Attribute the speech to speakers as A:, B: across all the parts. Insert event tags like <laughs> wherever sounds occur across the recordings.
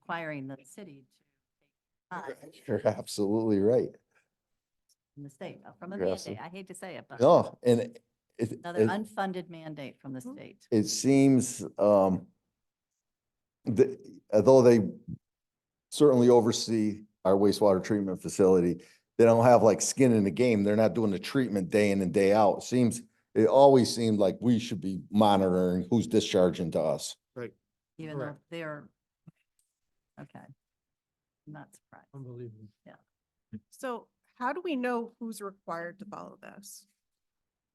A: requiring the city to take funds
B: <laughs> You're absolutely right.
A: from the state, uh, from a
B: You're absolute-
A: mandate. I hate to say it, but
B: No, and it, it,
A: another
B: it-
A: unfunded mandate from the state.
B: it seems, um, the, although they certainly oversee our wastewater treatment facility, they don't have like skin in the game. They're not doing the treatment day in and day out. Seems, it always seemed like we should be monitoring who's discharging to us.
A: even though
C: Correct.
A: they're, okay. I'm Not surprised.
C: Unbelievable.
D: So how do we know who's required to follow this?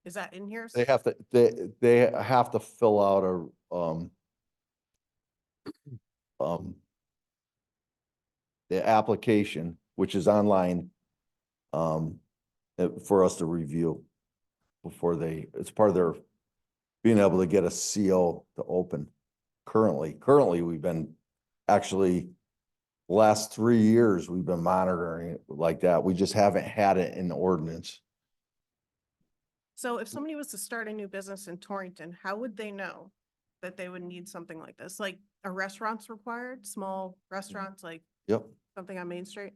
D: Is that in here?
B: They have to, they, they have to fill out a, um, um, the application, which is online, um, uh, for us to review before they, it's part of their being able to get a CO to open currently. Currently, we've been actually last three years, we've been monitoring it like that. We just haven't had it in the ordinance.
D: So if somebody was to start a new business in Torrington, how would they know that they would need something like this? Like a restaurant's required, small
B: Mm-hmm.
D: restaurants, like
B: Yep.
D: something on Main Street?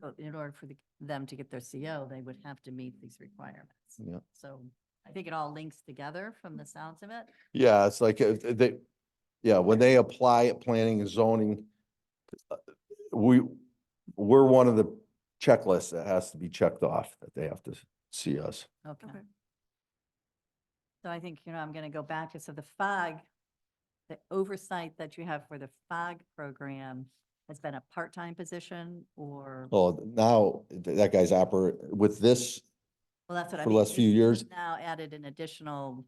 A: But in order for the- them to get their CO, they would have to meet these requirements.
B: Yeah.
A: So I think it all links together from the sounds of it.
B: Yeah, it's like, uh, they, yeah, when they apply at planning and zoning, uh, we, we're one of the checklists that has to be checked off, that they have to see us.
A: Okay.
D: Okay.
A: So I think, you know, I'm going to go back to, so the FOG, the oversight that you have for the FOG program has been a part-time position or, well,
B: Well, now, th- that guy's operate, with this,
A: that's what I
B: for
A: mean.
B: the last few
A: you've
B: years,
A: Now added an additional,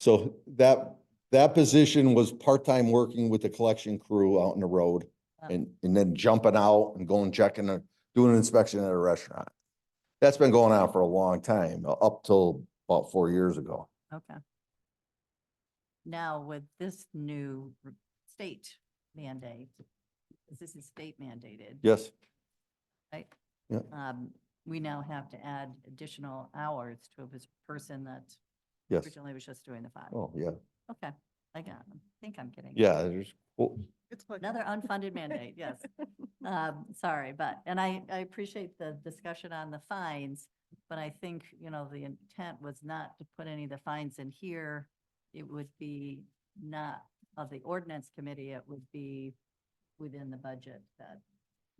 B: so that, that position was part-time working with the collection crew out on the road
A: Oh.
B: and, and then jumping out and going checking, a- doing an inspection at a restaurant. That's been going on for a long time, u- up till about four years ago.
A: okay. Now with this new r- state mandate, 'cause this is state mandated.
B: Yes.
A: right?
B: Yeah.
A: Um, we now have to add additional hours to a pers- person that
B: Yes.
A: originally was just doing the five.
B: Oh, yeah,
A: Okay, I got, I think I'm getting. it.
B: yeah, oh, there's, well,
D: It's like
A: Another unfunded mandate,
D: <laughs>
A: yes. Um, sorry, but, and I, I appreciate the discussion on the fines, but I think, you know, the intent was not to put any of the fines in here. It would be not of the ordinance committee, it would be within the budget that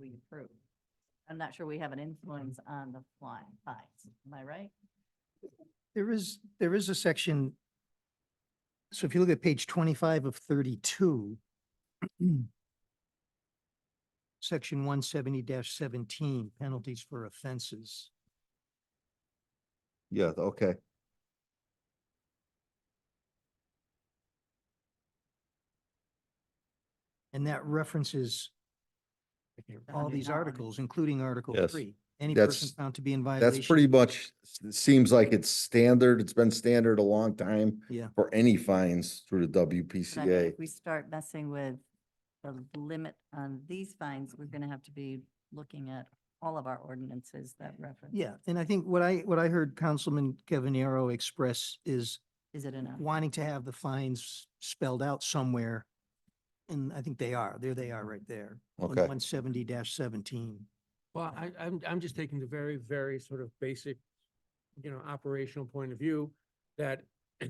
A: we approve. I'm not sure we have an influence on the fly, fines, am I right?
E: There is, there is a section. So if you look at page twenty-five of thirty-two. <clears throat> Section one seventy seventeen, penalties for offenses.
B: yeah, okay.
E: And that references all these
A: 109.
E: articles, including Article
B: Yes.
E: three. Any
B: That's-
E: person found to be in violation.
B: That's pretty much, it seems like it's standard, it's been standard a long time.
E: Yeah.
B: For any fines through the
A: But I think
B: WPCA.
A: If we start messing with the limit on these fines, we're gonna have to be looking at all of our ordinances that reference.
E: Yeah, and I think what I, what I heard Councilman Cavanero express is
A: Is it enough?
E: wanting to have the fines spelled out somewhere. And I think they are, there they are right there.
B: Okay,
E: One seventy seventeen.
C: Well, I, I'm, I'm just taking the very, very sort of basic, you know, operational point of view that <clears throat>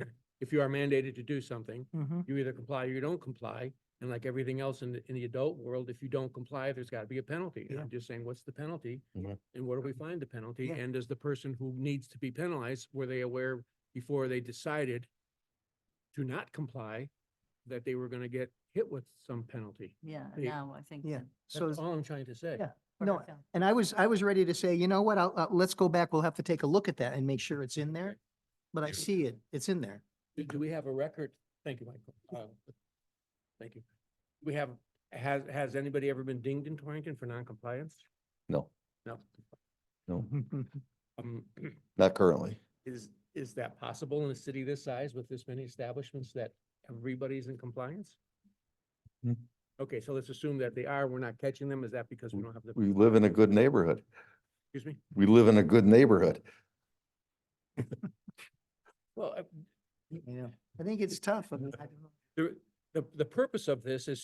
C: if you are mandated to do something, you either comply or you don't comply. And like everything else in the, in the adult world, if you don't comply, there's got to be a penalty. And
E: Yeah.
C: I'm just saying, what's the penalty?
B: Mhm.
C: And where do we find the penalty?
E: Yeah.
C: And does the person who needs to be penalized, were they aware before they decided to not comply that they were going to get hit with some penalty?
A: Yeah,
C: Yeah.
A: now I think.
E: Yeah,
A: that
E: so,
C: That's all I'm trying to say.
E: yeah.
A: we're
E: No,
A: not gonna-
E: and I was, I was ready to say, you know what, I'll, uh, let's go back, we'll have to take a look at that and make sure it's in there. But I see it, it's in there.
C: Do, do we have a record? Thank you, Michael. Uh, Thank you. We have, has, has anybody ever been dinged in Torrington for noncompliance?
B: no,
C: No.
E: <laughs>
C: Um, <clears throat>
B: not currently.
C: is, is that possible in a city this size with this many establishments that everybody's in compliance?
B: Hmm.
C: Okay, so let's assume that they are. We're not catching them. Is that because we don't have the,
B: We live in a good neighborhood.
C: excuse me?
B: We live in a good neighborhood.
C: Well, uh,
E: I know. I think it's tough. I mean, I don't know.
C: there, the, the purpose of this is